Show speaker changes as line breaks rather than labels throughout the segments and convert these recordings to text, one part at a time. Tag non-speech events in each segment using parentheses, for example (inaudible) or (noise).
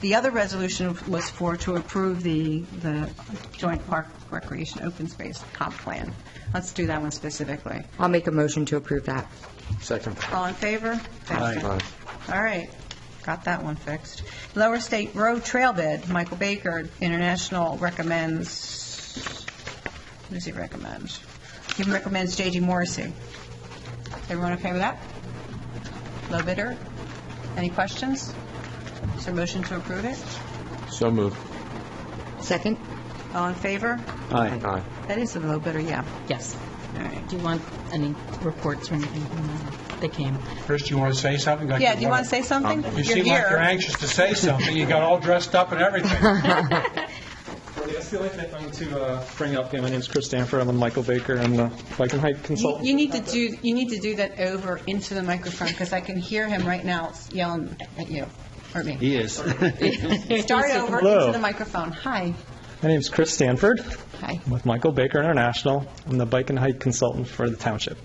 The other resolution was for to approve the, the joint park recreation open space comp plan. Let's do that one specifically.
I'll make a motion to approve that.
Second.
All in favor?
Aye.
All right, got that one fixed. Lower State Road Trail Bid, Michael Baker International recommends, what does he recommend? He recommends J.D. Morrissey. Everyone okay with that? Low bidder? Any questions? Is there a motion to approve it?
So moved.
Second?
All in favor?
Aye. Aye.
That is a low bidder, yeah.
Yes.
All right.
Do you want any reports or anything? They came.
Chris, do you want to say something? Like
Yeah, do you want to say something?
Um,
You
You're
seem like
here.
you're anxious to say something. You got all dressed up
(laughs)
and everything.
Well, That's the only thing I'm going to uh, bring up. Yeah, my name's Chris Stanford. I'm the Michael Baker. I'm the Bike and Hike
You
Consultant.
you need to do, you need to do that over into the microphone, because I can hear him right now yelling at you, or me.
He
(laughs)
is.
Start over
Hello.
into the microphone. Hi.
My name's Chris Stanford.
Hi.
I'm with Michael Baker International. I'm the Bike and Hike Consultant for the township.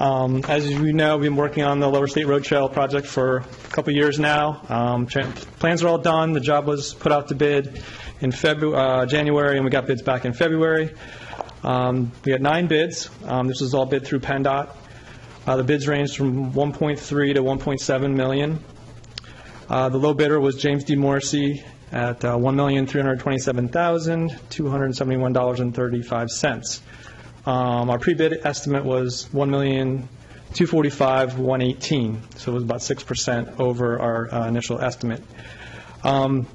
Um, As you know, we've been working on the Lower State Road Trail project for a couple years now. Um, tra- Plans are all done. The job was put out to bid in February, January, and we got bids back in February. Um, We had nine bids. Um, This was all bid through PennDOT. Uh, The bids ranged from 1.3 to 1.7 million. Uh, The low bidder was James D. Morrissey at uh, $1,327,271.35. Um, Our pre-bid estimate was $1,245,118, so it was about 6% over our uh, initial estimate. Um,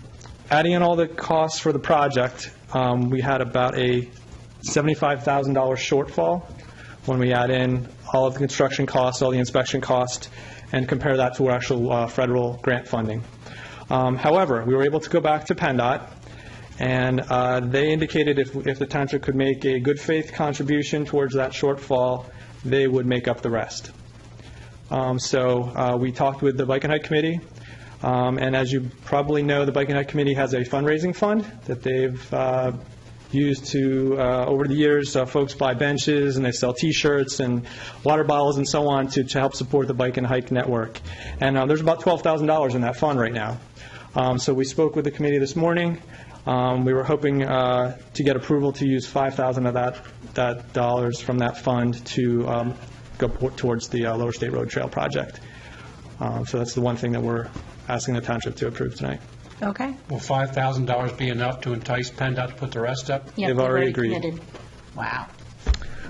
Adding in all the costs for the project, um, we had about a $75,000 shortfall when we add in all of the construction costs, all the inspection costs, and compare that to our actual uh, federal grant funding. Um, However, we were able to go back to PennDOT, and uh, they indicated if if the township could make a good faith contribution towards that shortfall, they would make up the rest. Um, So uh, we talked with the Bike and Hike Committee, um, and as you probably know, the Bike and Hike Committee has a fundraising fund that they've uh, used to, uh, over the years, uh, folks buy benches and they sell T-shirts and water bottles and so on to to help support the Bike and Hike Network. And uh, there's about $12,000 in that fund right now. Um, So we spoke with the committee this morning. Um, We were hoping uh, to get approval to use 5,000 of that, that dollars from that fund to um, go po- towards the uh, Lower State Road Trail project. Um, So that's the one thing that we're asking the township to approve tonight.
Okay.
Will $5,000 be enough to entice PennDOT to put the rest up?
Yeah,
They've
they've
already agreed.
committed.
Wow.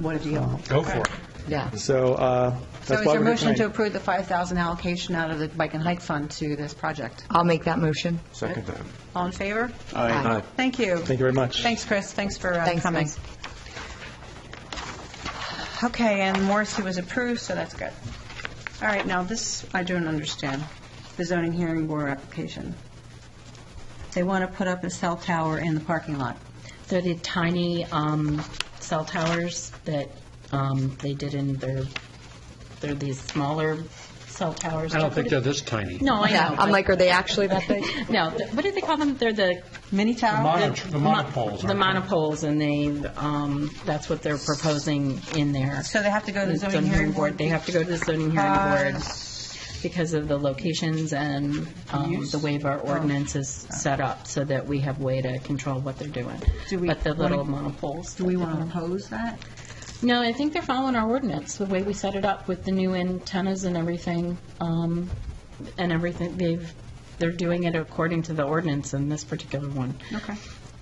What a deal.
Go for it.
Yeah.
So
So
uh, that's
is
why
your
we're here
motion to
tonight.
approve the 5,000 allocation out of the Bike and Hike Fund to this project?
I'll make that motion.
Second that.
All in favor?
Aye.
Thank you.
Thank you very much.
Thanks, Chris. Thanks for uh,
Thanks,
coming.
guys.
Okay, and Morrissey was approved, so that's good. All right, now this, I don't understand, the zoning hearing board application. They want to put up a cell tower in the parking lot.
They're the tiny um, cell towers that um, they did in their, they're these smaller cell towers.
I don't think they're this tiny.
No, I know.
Yeah, um, I'm like, are they actually that big?
but- No, th- what do they call them? They're the.
Mini tower?
Mono- The monopoles.
The
aren't they?
monopoles, and they, um, that's what they're proposing in there.
So they have to go to the zoning hearing board?
They have to go to the zoning hearing board
because-
because of the locations and um, the way our
Oh.
ordinance is set up, so that we have way to control what they're doing.
Do we
But the little
wanna-
monopoles.
Do we want to oppose that?
No, I think they're following our ordinance, the way we set it up with the new antennas and everything, um, and everything, they've, they're doing it according to the ordinance in this particular one.
Okay.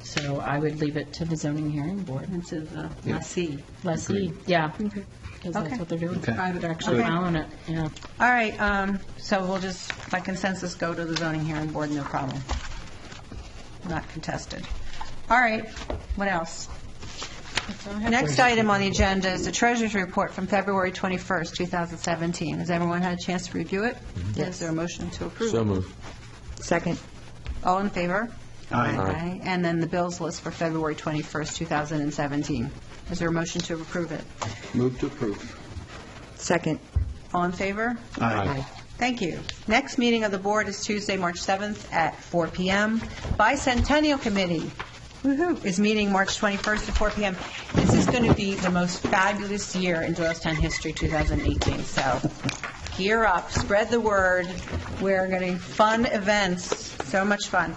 So I would leave it to the zoning hearing board.
This is uh, I see.
Lessee, yeah, because
Okay.
that's what they're doing.
Okay.
They're actually
Good.
following it, yeah.
All right, um, so we'll just, by consensus, go to the zoning hearing board, no problem. Not contested. All right, what else? Next item on the agenda is the treasurer's report from February 21st, 2017. Has everyone had a chance to review it? Is there a motion to approve?
So moved.
Second?
All in favor?
Aye.
Aye. And then the bills list for February 21st, 2017. Is there a motion to approve it?
Move to approve.
Second.
All in favor?
Aye.
Thank you. Next meeting of the board is Tuesday, March 7th at 4 PM. Bicentennial Committee woo-hoo, is meeting March 21st at 4 PM. This is going to be the most fabulous year in Doylestown history, 2018, so gear up, spread the word. We're getting fun events, so much fun.